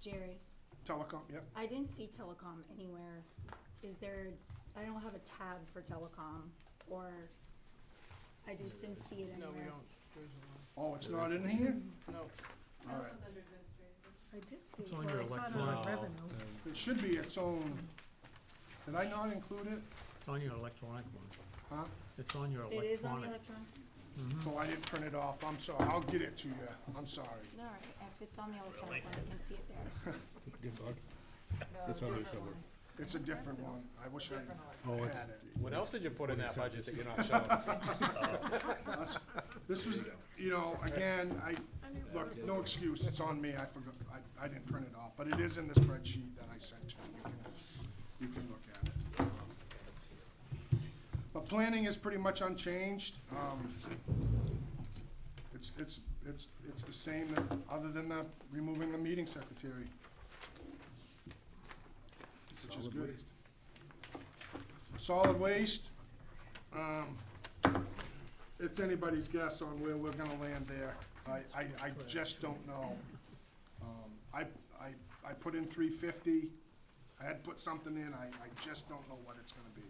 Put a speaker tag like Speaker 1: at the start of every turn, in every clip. Speaker 1: Jerry,
Speaker 2: Telecom, yep.
Speaker 1: I didn't see telecom anywhere. Is there, I don't have a tab for telecom, or I just didn't see it
Speaker 3: No, we
Speaker 1: anywhere.
Speaker 3: don't, there's a
Speaker 2: Oh, it's not in here?
Speaker 3: lot, no.
Speaker 2: All right.
Speaker 4: I did see,
Speaker 5: It's
Speaker 4: well,
Speaker 5: on your
Speaker 4: I saw it on
Speaker 5: electronic,
Speaker 4: the revenue.
Speaker 2: It should be its own. Did I not include it?
Speaker 5: it's on your electronic one.
Speaker 2: Huh?
Speaker 5: It's on your
Speaker 1: It is on the
Speaker 5: electronic.
Speaker 1: electronic?
Speaker 6: Mm-hmm.
Speaker 2: So I didn't print it off. I'm sorry. I'll get it to you. I'm sorry.
Speaker 1: All right, if it's on the electronic one, I can see it there.
Speaker 6: Good dog. That's on there somewhere.
Speaker 2: It's a different one. I wish I
Speaker 6: Oh, it's,
Speaker 2: had it.
Speaker 7: What else did you put in that budget that you're not showing us?
Speaker 2: That's- This was, you know, again, I, look, no excuse. It's on me. I forgot. I, I didn't print it off, but it is in the spreadsheet that I sent to you. You can- You can look at it. But planning is pretty much unchanged. Um, It's, it's, it's, it's the same, that- other than the, removing the meeting secretary. Which is
Speaker 6: Solid
Speaker 2: good.
Speaker 6: waste.
Speaker 2: Solid waste, um, it's anybody's guess on where we're gonna land there. I, I, I just don't know. Um, I, I, I put in three fifty, I had put something in, I, I just don't know what it's gonna be.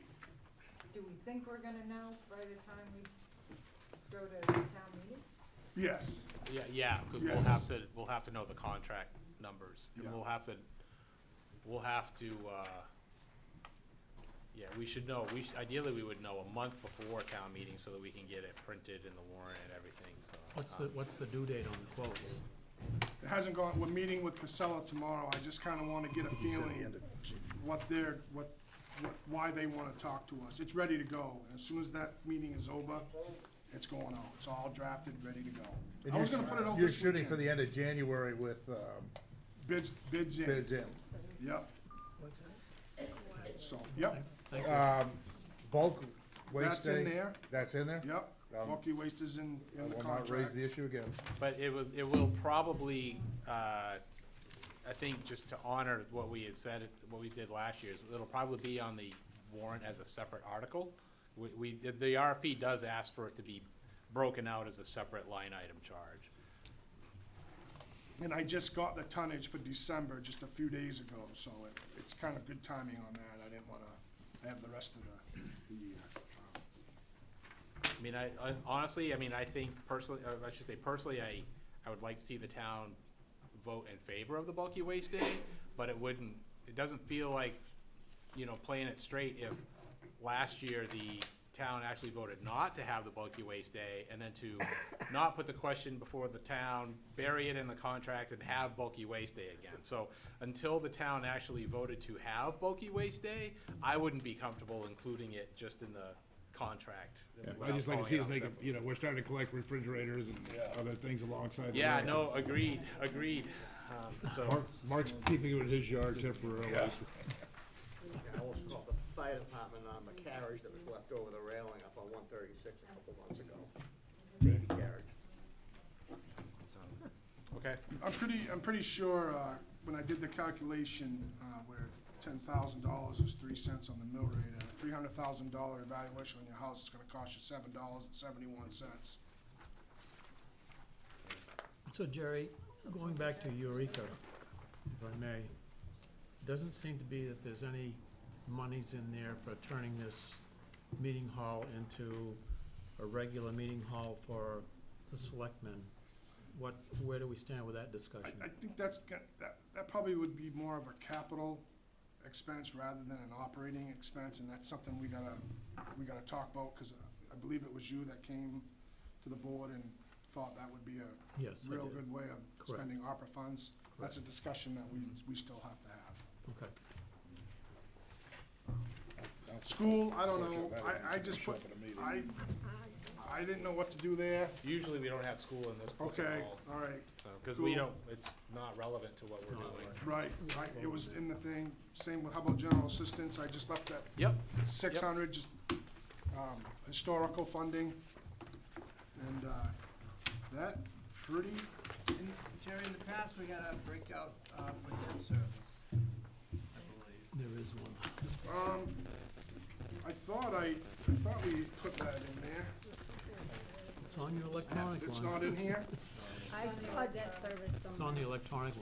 Speaker 4: Do we think we're gonna know by the time we go to town meeting?
Speaker 2: Yes,
Speaker 7: Yeah, yeah, because we'll
Speaker 2: Yes.
Speaker 7: have to, we'll have to know the contract numbers.
Speaker 2: Yeah.
Speaker 7: And we'll have to, we'll have to, uh, yeah, we should know, we, should- ideally, we would know a month before town meeting so that we can get it printed in the warrant and everything, so.
Speaker 5: What's the,
Speaker 7: um,
Speaker 5: what's the due date on the quotes?
Speaker 2: it hasn't gone, we're meeting with Casella tomorrow, I just kinda wanna get a feeling what they're, what, what, why they wanna talk to us. It's ready to go, and as soon as that meeting is over, it's going out, it's all drafted, ready to go.
Speaker 8: And
Speaker 2: I was
Speaker 8: you're-
Speaker 2: gonna put it out
Speaker 8: You're
Speaker 2: this
Speaker 8: shooting for
Speaker 2: weekend.
Speaker 8: the end of January with um,
Speaker 2: Bids, bids in,
Speaker 8: bids in.
Speaker 2: yep. So, yep,
Speaker 5: Thank you.
Speaker 8: Um, Bulk waste.
Speaker 2: That's in
Speaker 8: day,
Speaker 2: there.
Speaker 8: That's in there?
Speaker 2: yep,
Speaker 8: Um,
Speaker 2: bulky waste is in,
Speaker 8: I
Speaker 2: in the
Speaker 8: will not raise
Speaker 2: contract.
Speaker 8: the issue again.
Speaker 7: But it was, it will probably, uh, I think, just to honor what we had said, what we did last year, is it'll probably be on the warrant as a separate article. We, we, the the RFP does ask for it to be broken out as a separate line item charge.
Speaker 2: And I just got the tonnage for December just a few days ago, so it, it's kind of good timing on that. I didn't wanna have the rest of the, the year. Um,
Speaker 7: I mean, I, I- honestly, I mean, I think personally, uh, I should say personally, I, I would like to see the town vote in favor of the bulky waste day, but it wouldn't, it doesn't feel like, you know, playing it straight if last year the town actually voted not to have the bulky waste day, and then to not put the question before the town, bury it in the contract, and have bulky waste day again. So until the town actually voted to have bulky waste day, I wouldn't be comfortable including it just in the contract.
Speaker 6: I just like to see us
Speaker 7: without calling
Speaker 6: make, a-
Speaker 7: out separate-
Speaker 6: you know, we're starting to collect refrigerators and other things alongside. the
Speaker 7: Yeah,
Speaker 6: road.
Speaker 7: no, agreed, agreed. Um, So,
Speaker 6: Mark, Mark's keeping it in his yard temporarily.
Speaker 9: I almost called the fire department on the carriage that was left over the railing up on one thirty-six a couple months ago. Baby carriage.
Speaker 7: okay,
Speaker 2: I'm pretty, I'm pretty sure, uh, when I did the calculation, uh, where ten thousand dollars is three cents on the mill rate, and a three hundred thousand dollar evaluation on your house is gonna cost you seven dollars and seventy-one cents.
Speaker 5: So Jerry, going back to Eureka, if I may, doesn't seem to be that there's any monies in there for turning this meeting hall into a regular meeting hall for the selectmen. What, where do we stand with that discussion?
Speaker 2: I, I think that's, go- that, that probably would be more of a capital expense rather than an operating expense, and that's something we gotta, we gotta talk about, because I believe it was you that came to the board and thought that would be a
Speaker 5: Yes, I
Speaker 2: real
Speaker 5: did.
Speaker 2: good way of
Speaker 5: Correct. Mm-hmm.
Speaker 2: spending ARPA funds. That's a discussion that we, we still have to have.
Speaker 5: Okay.
Speaker 2: School, I don't know, I, I just put, I, I didn't know what to do there.
Speaker 7: usually we don't have school in this book at
Speaker 2: Okay,
Speaker 7: all,
Speaker 2: all right,
Speaker 7: because we
Speaker 2: cool.
Speaker 7: don't, it's not relevant to what we're doing.
Speaker 2: right, right, it was in the thing, same with, how about general assistance, I just left that
Speaker 7: Yep,
Speaker 2: six hundred, just, um, historical funding. And, uh, that, pretty,
Speaker 3: In- Jerry, in the past, we got a breakout uh, for debt service, I believe.
Speaker 5: There is one.
Speaker 2: um, I thought I, I thought we put that in there.
Speaker 5: It's on your electronic one.
Speaker 2: It's not in here?
Speaker 1: I saw debt service somewhere.
Speaker 5: It's on the electronic one.